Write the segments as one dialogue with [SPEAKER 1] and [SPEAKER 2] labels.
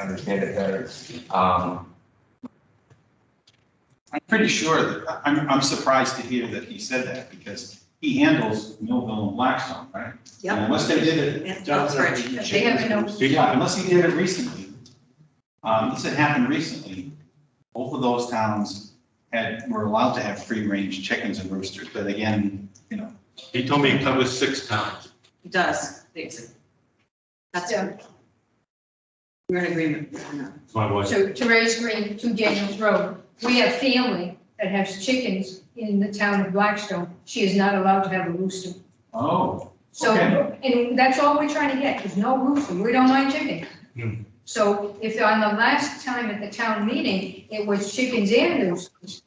[SPEAKER 1] understand it better. Um,
[SPEAKER 2] I'm pretty sure that, I- I'm, I'm surprised to hear that he said that because he handles Millville and Blackstone, right?
[SPEAKER 3] Yep.
[SPEAKER 2] And Unless they did it,
[SPEAKER 3] And Uxbridge, they have no,
[SPEAKER 2] yeah, unless he did it recently. Um, this had happened recently. Both of those towns had, were allowed to have free range chickens and roosters, but again, you know,
[SPEAKER 4] He told me it covers six towns.
[SPEAKER 3] it does, basically. That's, we're in agreement.
[SPEAKER 4] That's my wife.
[SPEAKER 5] So to raise Green to Daniels Road, we have family that has chickens in the town of Blackstone. She is not allowed to have a rooster.
[SPEAKER 2] oh,
[SPEAKER 5] So,
[SPEAKER 2] Okay.
[SPEAKER 5] and that's all we're trying to get, is no rooster. We don't mind
[SPEAKER 4] Hmm.
[SPEAKER 5] chicken. So if on the last time at the town meeting, it was chickens and roosters.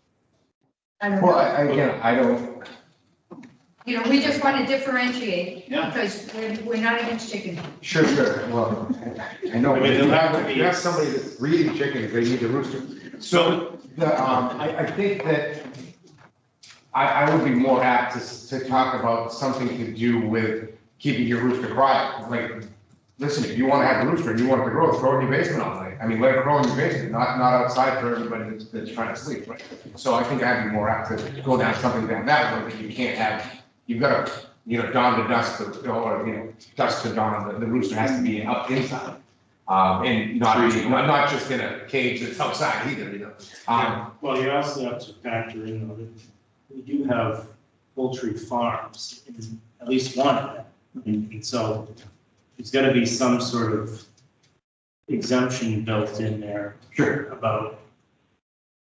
[SPEAKER 5] I don't
[SPEAKER 1] well,
[SPEAKER 5] know,
[SPEAKER 1] I, again, I don't,
[SPEAKER 5] you know, we just want to differentiate
[SPEAKER 2] yeah.
[SPEAKER 5] because we're, we're not against chicken.
[SPEAKER 1] sure, sure, well, I know.
[SPEAKER 4] I mean,
[SPEAKER 1] You
[SPEAKER 4] there'll have
[SPEAKER 1] have,
[SPEAKER 4] to be-
[SPEAKER 1] you have somebody that's breeding chickens, they need a rooster.
[SPEAKER 4] So,
[SPEAKER 1] The, um, I, I think that I, I would be more apt to, s- to talk about something to do with keeping your rooster quiet. Like, listen, if you want to have a rooster and you want it to grow, throw it in your basement all night. I mean, let it grow in your basement, not, not outside for everybody that's, that's trying to sleep, right? So I think I'd be more apt to go down something down that road, that you can't have, you've got to, you know, dawn to dusk, or, or, you know, dusk to dawn, the, the rooster has to be up inside. Um, and not, be- not, not just in a cage that's outside either, you know? Um,
[SPEAKER 6] Well, you also have to factor in that we do have poultry farms, and at least one of them. And and so there's got to be some sort of exemption built in there
[SPEAKER 1] Sure.
[SPEAKER 6] about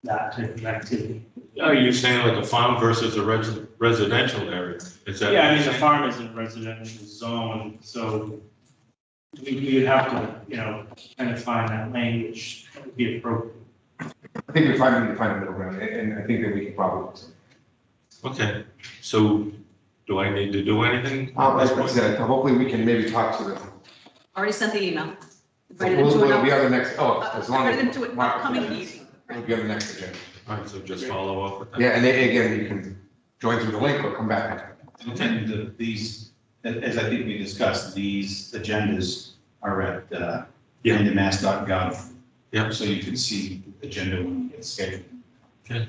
[SPEAKER 6] that type of activity.
[SPEAKER 4] are you uh, saying like a farm versus a res- residential area? Is that?
[SPEAKER 6] Yeah, I mean, the farm is in a residential zone, so we, we would have to, you know, kind of find that language that would be appropriate.
[SPEAKER 1] I think we find, we find a middle ground, and, and I think that we can probably.
[SPEAKER 4] Okay, so do I need to do anything? at
[SPEAKER 1] Um,
[SPEAKER 4] this
[SPEAKER 1] as I
[SPEAKER 4] point?
[SPEAKER 1] said, hopefully we can maybe talk to them.
[SPEAKER 3] Already sent the email. Invited them
[SPEAKER 1] We'll,
[SPEAKER 3] to an,
[SPEAKER 1] we'll be
[SPEAKER 3] up-
[SPEAKER 1] on the next, oh,
[SPEAKER 3] uh,
[SPEAKER 1] as long as.
[SPEAKER 3] invited them to an
[SPEAKER 1] Mark-
[SPEAKER 3] upcoming meeting.
[SPEAKER 1] We'll be on the next agenda.
[SPEAKER 4] All right, so just follow up with that.
[SPEAKER 1] Yeah, and then again, you can join through the link or come back.
[SPEAKER 2] And the- these, a- as I think we discussed, these agendas are at, uh,
[SPEAKER 4] Yeah.
[SPEAKER 2] mass.gov.
[SPEAKER 4] Yeah.
[SPEAKER 2] So you can see the agenda when it's scheduled.
[SPEAKER 4] All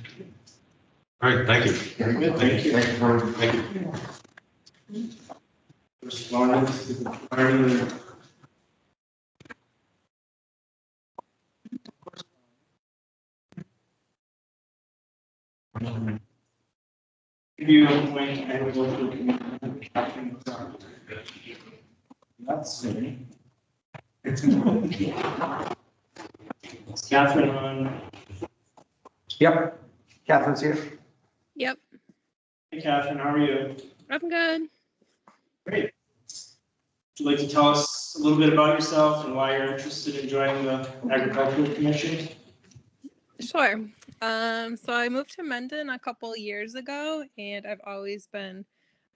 [SPEAKER 4] right, thank you.
[SPEAKER 1] Very good,
[SPEAKER 6] thank you.
[SPEAKER 1] Thank you for.
[SPEAKER 4] Thank you.
[SPEAKER 6] Respondents to the requirement of Give you a point, I would go to community. That's me. It's Catherine on,
[SPEAKER 1] Yep, Catherine's here.
[SPEAKER 6] hey Catherine, how are you?
[SPEAKER 7] I'm good.
[SPEAKER 6] Great. Would you like to tell us a little bit about yourself and why you're interested in joining the agricultural commission?
[SPEAKER 7] Sure. Um, so I moved to Mendon a couple years ago, and I've always been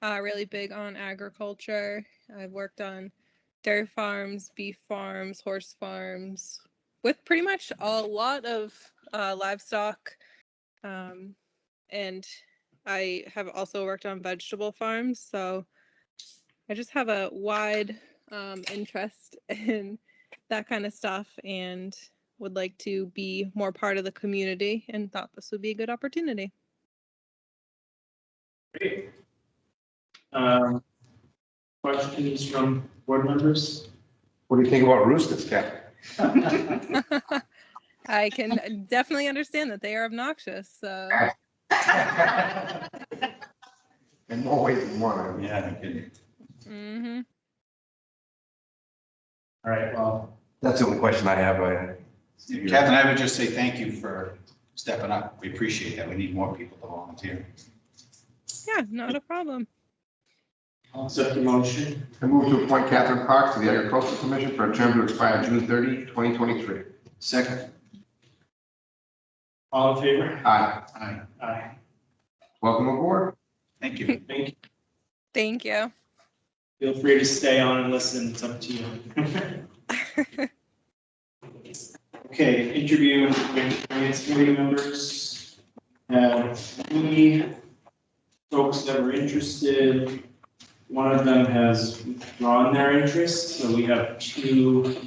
[SPEAKER 7] uh, really big on agriculture. I've worked on dairy farms, beef farms, horse farms, with pretty much a lot of uh, livestock. Um, and I have also worked on vegetable farms. So I just have a wide um, interest in that kind of stuff. And would like to be more part of the community and thought this would be a good opportunity.
[SPEAKER 6] Great. Um, Questions from board members?
[SPEAKER 1] What do you think about roosters, Catherine?
[SPEAKER 7] I can uh, definitely understand that they are obnoxious. So
[SPEAKER 1] In more ways than one.
[SPEAKER 2] Yeah, no kidding.
[SPEAKER 7] mhm.
[SPEAKER 6] All right, well,
[SPEAKER 1] That's the only question I have, I.
[SPEAKER 2] Catherine, I would just say thank you for stepping up. We appreciate that. We need more people to volunteer.
[SPEAKER 7] yeah, not a problem.
[SPEAKER 6] I'll accept the motion.
[SPEAKER 1] I move to appoint Catherine Parks to the Agricultural Commission for a term to expire June 30, 2023.
[SPEAKER 2] Second,
[SPEAKER 6] All in favor?
[SPEAKER 1] Aye.
[SPEAKER 2] aye,
[SPEAKER 6] Aye.
[SPEAKER 1] Welcome aboard.
[SPEAKER 2] thank you.
[SPEAKER 6] Thank you.
[SPEAKER 7] Thank you.
[SPEAKER 6] Feel free to stay on and listen. It's up to you. Okay, interview and finance committee members. Uh, Any folks that were interested, one of them has withdrawn their interest, so we have two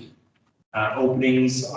[SPEAKER 6] uh, openings